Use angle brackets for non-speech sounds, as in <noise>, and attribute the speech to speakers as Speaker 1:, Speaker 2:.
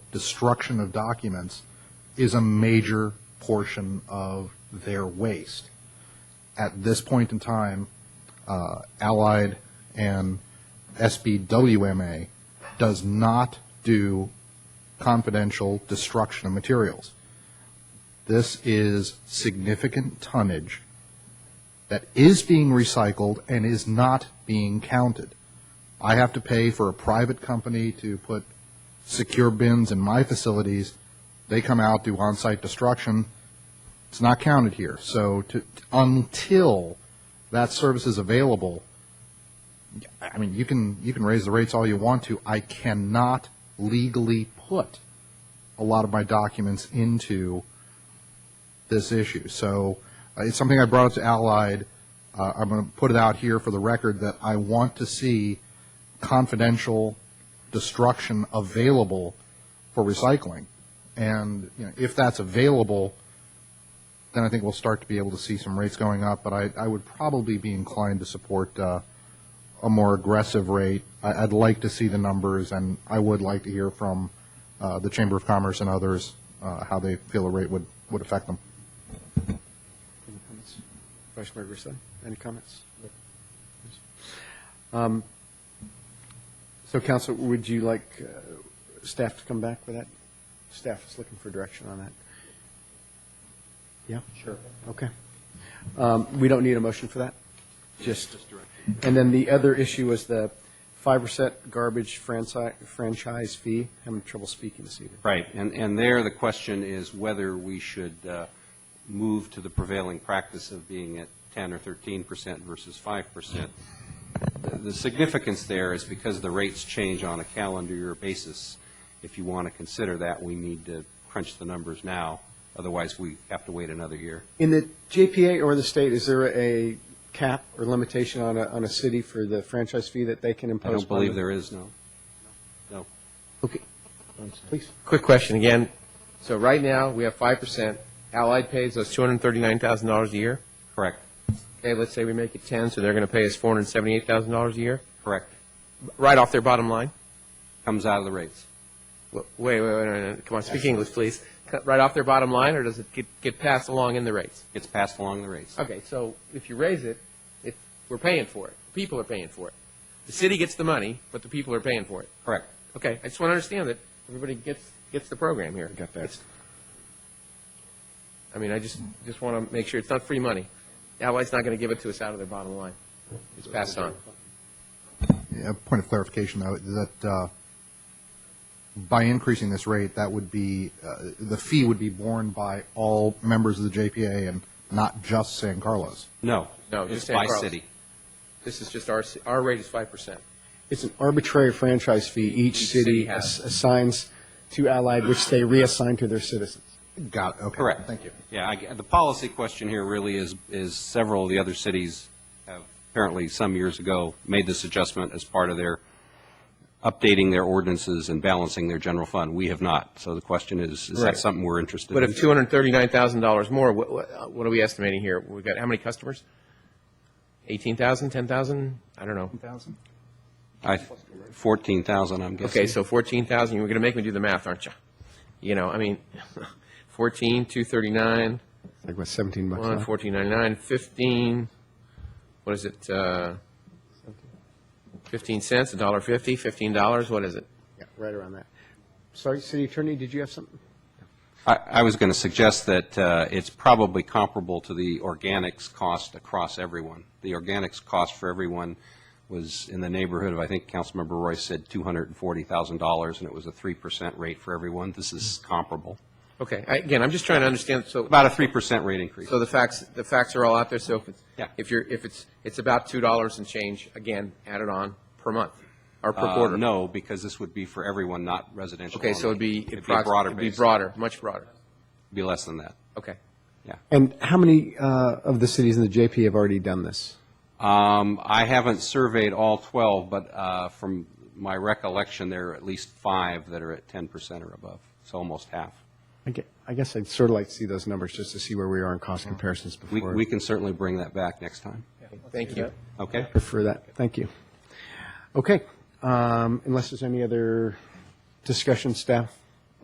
Speaker 1: destruction of documents is a major portion of their waste. At this point in time, uh, Allied and SBWMA does not do confidential destruction of materials. This is significant tonnage that is being recycled and is not being counted. I have to pay for a private company to put secure bins in my facilities. They come out, do on-site destruction. It's not counted here. So to, until that service is available, I mean, you can, you can raise the rates all you want to. I cannot legally put a lot of my documents into this issue. So uh, it's something I brought up to Allied. Uh, I'm going to put it out here for the record that I want to see confidential destruction available for recycling. And you know, if that's available, then I think we'll start to be able to see some rates going up. But I, I would probably be inclined to support uh, a more aggressive rate. I, I'd like to see the numbers, and I would like to hear from uh, the Chamber of Commerce and others uh, how they feel the rate would, would affect them.
Speaker 2: Any comments? Vice Mayor Grisilli, any comments? Um, So, Council, would you like uh, staff to come back with that? Staff is looking for direction on that. Yeah? Sure. Okay. Um, We don't need a motion for that? Just, and then the other issue was the 5% garbage franchi- franchise fee. Having trouble speaking this evening.
Speaker 3: Right, and, and there, the question is whether we should uh, move to the prevailing practice of being at 10 or 13 percent versus 5 percent. The significance there is because the rates change on a calendar year basis. If you want to consider that, we need to crunch the numbers now, otherwise we have to wait another year.
Speaker 2: In the JPA or the state, is there a cap or limitation on a, on a city for the franchise fee that they can impose?
Speaker 3: I don't
Speaker 2: upon
Speaker 3: believe
Speaker 2: them?
Speaker 3: there is, no. No.
Speaker 2: Please.
Speaker 4: Quick question again. So right now, we have 5%. Allied pays us $239,000 a year.
Speaker 3: Correct,
Speaker 4: Okay, let's say we make it 10, so they're going to pay us $478,000 a year,
Speaker 3: correct.
Speaker 4: right off their bottom line?
Speaker 3: Comes out of the rates.
Speaker 4: Wait, wait, wait, wait, wait, come on, speak English, please. Cut Right off their bottom line, or does it get, get passed along in the rates?
Speaker 3: It's passed along the rates.
Speaker 4: Okay, so if you raise it, if, we're paying for it. People are paying for it. The city gets the money, but the people are paying for it.
Speaker 3: Correct.
Speaker 4: Okay, I just want to understand that everybody gets, gets the program here.
Speaker 2: Got that.
Speaker 4: I mean, I just, just want to make sure it's not free money. Allied's not going to give it to us out of their bottom line. It's passed on.
Speaker 1: A point of clarification, though, that uh, by increasing this rate, that would be, uh, the fee would be borne by all members of the JPA and not just San Carlos.
Speaker 3: No.
Speaker 4: No,
Speaker 3: It's
Speaker 4: just
Speaker 3: by
Speaker 4: San Carlos.
Speaker 3: city.
Speaker 4: This is just our, ci- our rate is five percent.
Speaker 2: It's an arbitrary franchise fee each
Speaker 4: Each
Speaker 2: city
Speaker 4: city has.
Speaker 2: ass- assigns to Allied, which they reassign to their citizens.
Speaker 1: Got it, okay.
Speaker 3: Correct.
Speaker 1: Thank you.
Speaker 3: Yeah, I g the policy question here really is, is several of the other cities have apparently some years ago made this adjustment as part of their updating their ordinances and balancing their general fund. We have not. So the question is, is that
Speaker 4: Right.
Speaker 3: something we're interested
Speaker 4: But
Speaker 3: in?
Speaker 4: if two hundred and thirty-nine thousand dollars more, what, what, uh, what are we estimating here? We've got, how many customers? Eighteen thousand, ten thousand? I don't know.
Speaker 3: I, 14,000, I'm guessing.
Speaker 4: Okay, so fourteen thousand, you're going to make me do the math, aren't you? You know, I mean, <laughs> fourteen, two thirty-nine,
Speaker 2: Like, what, 17 bucks?
Speaker 4: one,
Speaker 2: huh?
Speaker 4: fourteen ninety-nine, fifteen, what is it, uh, fifteen cents, a dollar fifty, fifteen dollars, what is it?
Speaker 2: Yeah, Right around that. Sorry, City Attorney, did you have something?
Speaker 3: I, I was going to suggest that uh, it's probably comparable to the organics cost across everyone. The organics cost for everyone was in the neighborhood of, I think Councilmember Roy said $240,000, and it was a 3% rate for everyone. This is comparable.
Speaker 4: Okay, I- again, I'm just trying to understand, so.
Speaker 3: About a 3% rate increase.
Speaker 4: So the facts, the facts are all out there, so if it's,
Speaker 3: Yeah.
Speaker 4: if you're, if it's, it's about two dollars and change, again, added on per month, or per
Speaker 3: Uh,
Speaker 4: quarter?
Speaker 3: No, because this would be for everyone, not residential
Speaker 4: Okay, so it'd
Speaker 3: only.
Speaker 4: be.
Speaker 3: It'd be
Speaker 4: approx-
Speaker 3: broader
Speaker 4: It'd be
Speaker 3: based.
Speaker 4: broader, much broader,
Speaker 3: Be less than that.
Speaker 4: okay.
Speaker 2: And how many uh, of the cities in the JP have already done this?
Speaker 3: Um, I haven't surveyed all 12, but uh, from my recollection, there are at least five that are at 10% or above, so almost half.
Speaker 2: I gue- I guess I'd sort of like to see those numbers just to see where we are in cost comparisons
Speaker 3: We,
Speaker 2: before.
Speaker 3: we can certainly bring that back next time.
Speaker 4: Thank you.
Speaker 3: Okay?
Speaker 2: prefer that. Thank you. Okay, um, unless there's any other discussion, staff?